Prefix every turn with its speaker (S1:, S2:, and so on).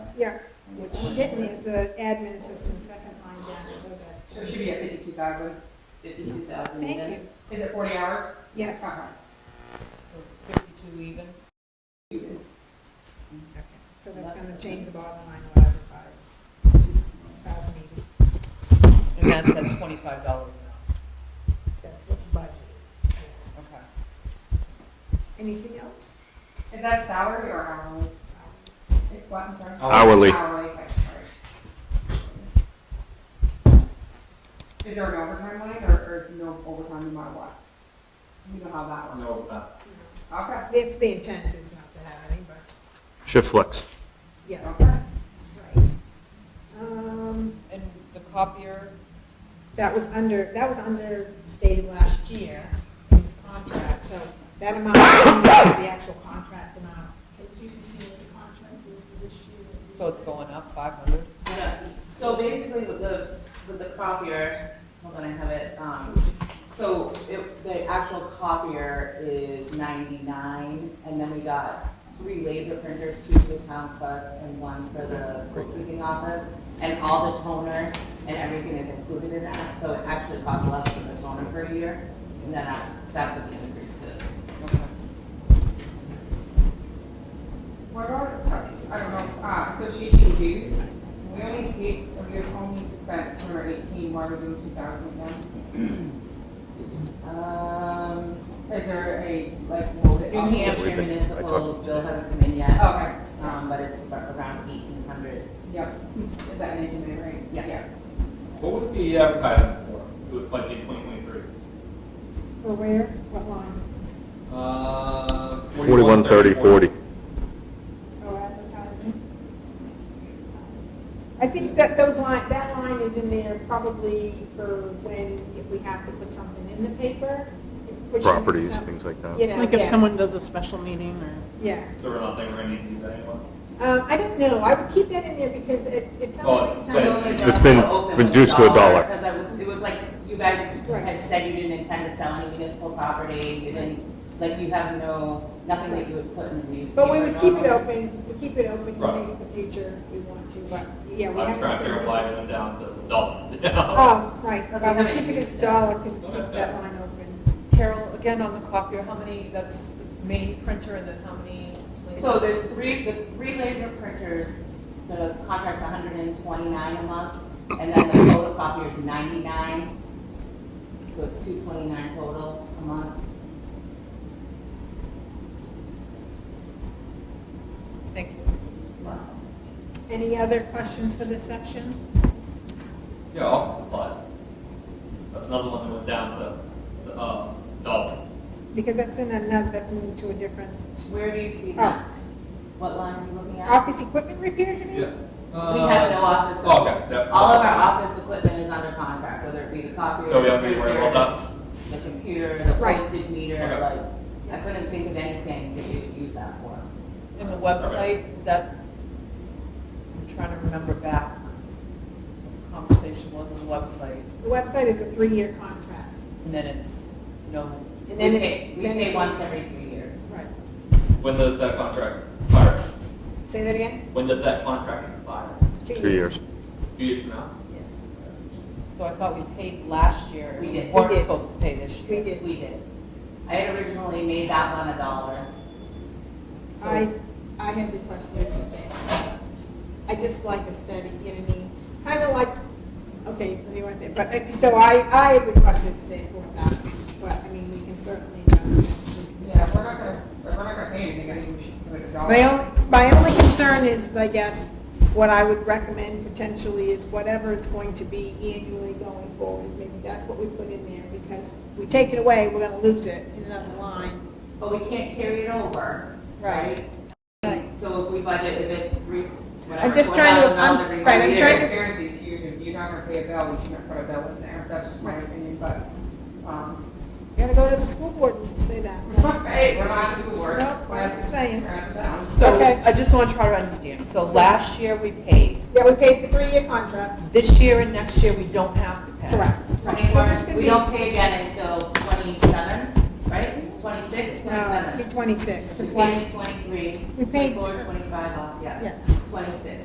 S1: Yeah, which we're getting the, the admin assistant second line down, so that's.
S2: So it should be at fifty-two thousand, fifty-two thousand
S1: Thank
S2: even.
S1: you,
S2: Is it forty hours?
S1: yes.
S2: Uh-huh.
S3: Fifty-two even?
S1: Okay, So that's gonna change the bottom line a lot by thousand eighty.
S3: And that's at twenty-five dollars an
S1: That's what the budget is.
S3: hour, okay.
S1: Anything else?
S2: Is that salary or hourly? It's what, I'm sorry?
S4: Hourly.
S2: Hourly, okay, sorry. Is there an overtime line or, or is no overtime no matter what? You know how that works?
S5: No, uh,
S2: Okay,
S1: It's the intent is not to have any, but
S4: Shift flex.
S1: yes,
S2: okay.
S1: right. Um,
S3: And the copier,
S1: that was under, that was understated last year in his contract, so that amount is the actual contract amount.
S3: so it's going up five hundred?
S6: Yeah, so basically with the, with the copier, hold on, I have it, um, so it, the actual copier is ninety-nine, and then we got three laser printers, two for the town clerks and one for the bookkeeping office, and all the toner and everything is included in that, so it actually costs less than the toner per year, and then that's, that's what the increase is.
S3: Okay.
S2: What are, I don't know, uh, association dues? We only paid, we only spent two hundred eighteen, why are we doing two thousand one?
S6: Um,
S2: Is there a, like, will it?
S6: New Hampshire
S4: We've been- I
S6: municipal
S4: talked-
S6: bill hasn't come in yet.
S2: Okay,
S6: um, but it's around eighteen hundred.
S2: yep, is that an engineer, right?
S6: Yeah.
S5: What was the advertising for? It was budget twenty twenty-three.
S1: Well, where, what line?
S5: Uh,
S4: 41, 30, 40.
S1: Oh, advertising. I think that those line, that line is in there probably for when, if we have to put something in the paper. which is
S4: Properties,
S1: some-
S4: things like that.
S1: You know,
S7: Like if
S1: yeah,
S7: someone does a special meeting or,
S1: Yeah.
S5: So we're not thinking we're gonna need to do that anymore?
S1: Um, I don't know, I would keep that in there because it, it's
S5: Oh,
S1: something.
S5: but-
S4: It's been reduced to a dollar.
S6: Because I was, it was like, you guys
S1: Right.
S6: had said you didn't intend to sell any municipal property, you didn't, like, you have no, nothing that you would put in the newspaper.
S1: But we would keep it
S6: normally.
S1: open, we keep it open in
S5: Right.
S1: case the future we want to, but, yeah,
S5: I
S1: we have.
S5: was trying to figure out why it went down to the dollar.
S1: Oh, right,
S6: Okay,
S1: well,
S6: how
S1: we
S6: many
S1: keep it as
S6: years?
S1: dollar because we keep that line open.
S3: Carol, again on the copier, how many, that's the main printer and then how many? like-
S6: So there's three, the three laser printers, the contract's hundred and twenty-nine a month, and then the photocopier's ninety-nine. So it's two twenty-nine total a month.
S3: Thank you.
S1: Any other questions for this section?
S5: Yeah, office supplies. That's another one that went down to the, uh, dollar.
S1: Because that's in another, that's moved to a different,
S6: Where do you see that? What line are you looking at?
S1: office equipment repairs, you mean?
S6: We have no office.
S5: Oh, okay, yeah.
S6: Uh, All of our office equipment is under contract, whether it be the copier.
S5: So Oh, we don't need to worry
S6: printers,
S5: about
S6: The computer, the
S1: Right.
S6: postage meter,
S5: Okay.
S6: like, I couldn't think of anything that you would use that for.
S3: And the website, is that, I'm trying to remember back, what the conversation was on the website,
S1: The website is a three-year contract.
S3: and then it's no,
S1: And then
S6: We
S1: it's-
S6: pay- We
S1: then
S6: pay
S1: it's-
S6: once every three years.
S1: Right.
S5: that. When does that contract expire?
S1: Say that again?
S5: When does that contract expire?
S4: Two years.
S5: Two years from now?
S3: so I thought we paid last year.
S6: We did.
S3: Weren't
S1: We did.
S3: supposed to pay this
S1: We
S3: year.
S1: did.
S6: We did. I had originally made that one a dollar. So-
S1: I, I had requested it to say, I just like a steady, you know what I mean? Kind of like, okay, so you want that, but, uh, so I, I had requested to say four thousand, but, I mean, we can certainly adjust.
S2: Yeah, if we're not gonna, if we're not gonna pay anything, I think we should do it a dollar.
S1: My only, my only concern is, I guess, what I would recommend potentially is whatever it's going to be annually going forward, maybe that's what we put in there, because if we take it away, we're gonna lose it in another line.
S6: But we can't carry it over, right? So if we budget, if it's three, whatever.
S1: I'm just trying to-
S6: $4,000
S1: I'm-
S6: every
S1: right, I'm
S6: year,
S1: trying to-
S2: Transparency is huge, if you're not gonna pay a bill, we shouldn't put a bill in there, that's just my opinion, but, um,
S1: You gotta go to the school board and say that.
S2: hey, we're not a school board.
S1: Nope, I'm just saying.
S2: We're not the town.
S3: So
S1: Okay.
S3: I just want to try to understand, so last year we paid,
S1: Yeah, we paid the three-year contract.
S3: this year and next year we don't have to pay.
S1: Right, so this
S6: Twenty-one,
S1: could
S6: we
S1: be- uh,
S6: don't pay again until twenty-seven, right? Twenty-six,
S1: No, it'd
S6: twenty-seven.
S1: be twenty-six,
S6: We
S1: because
S6: paid
S1: last,
S6: twenty-three.
S1: We paid-
S6: Four, twenty-five off, yeah.
S1: yeah.
S6: Twenty-six.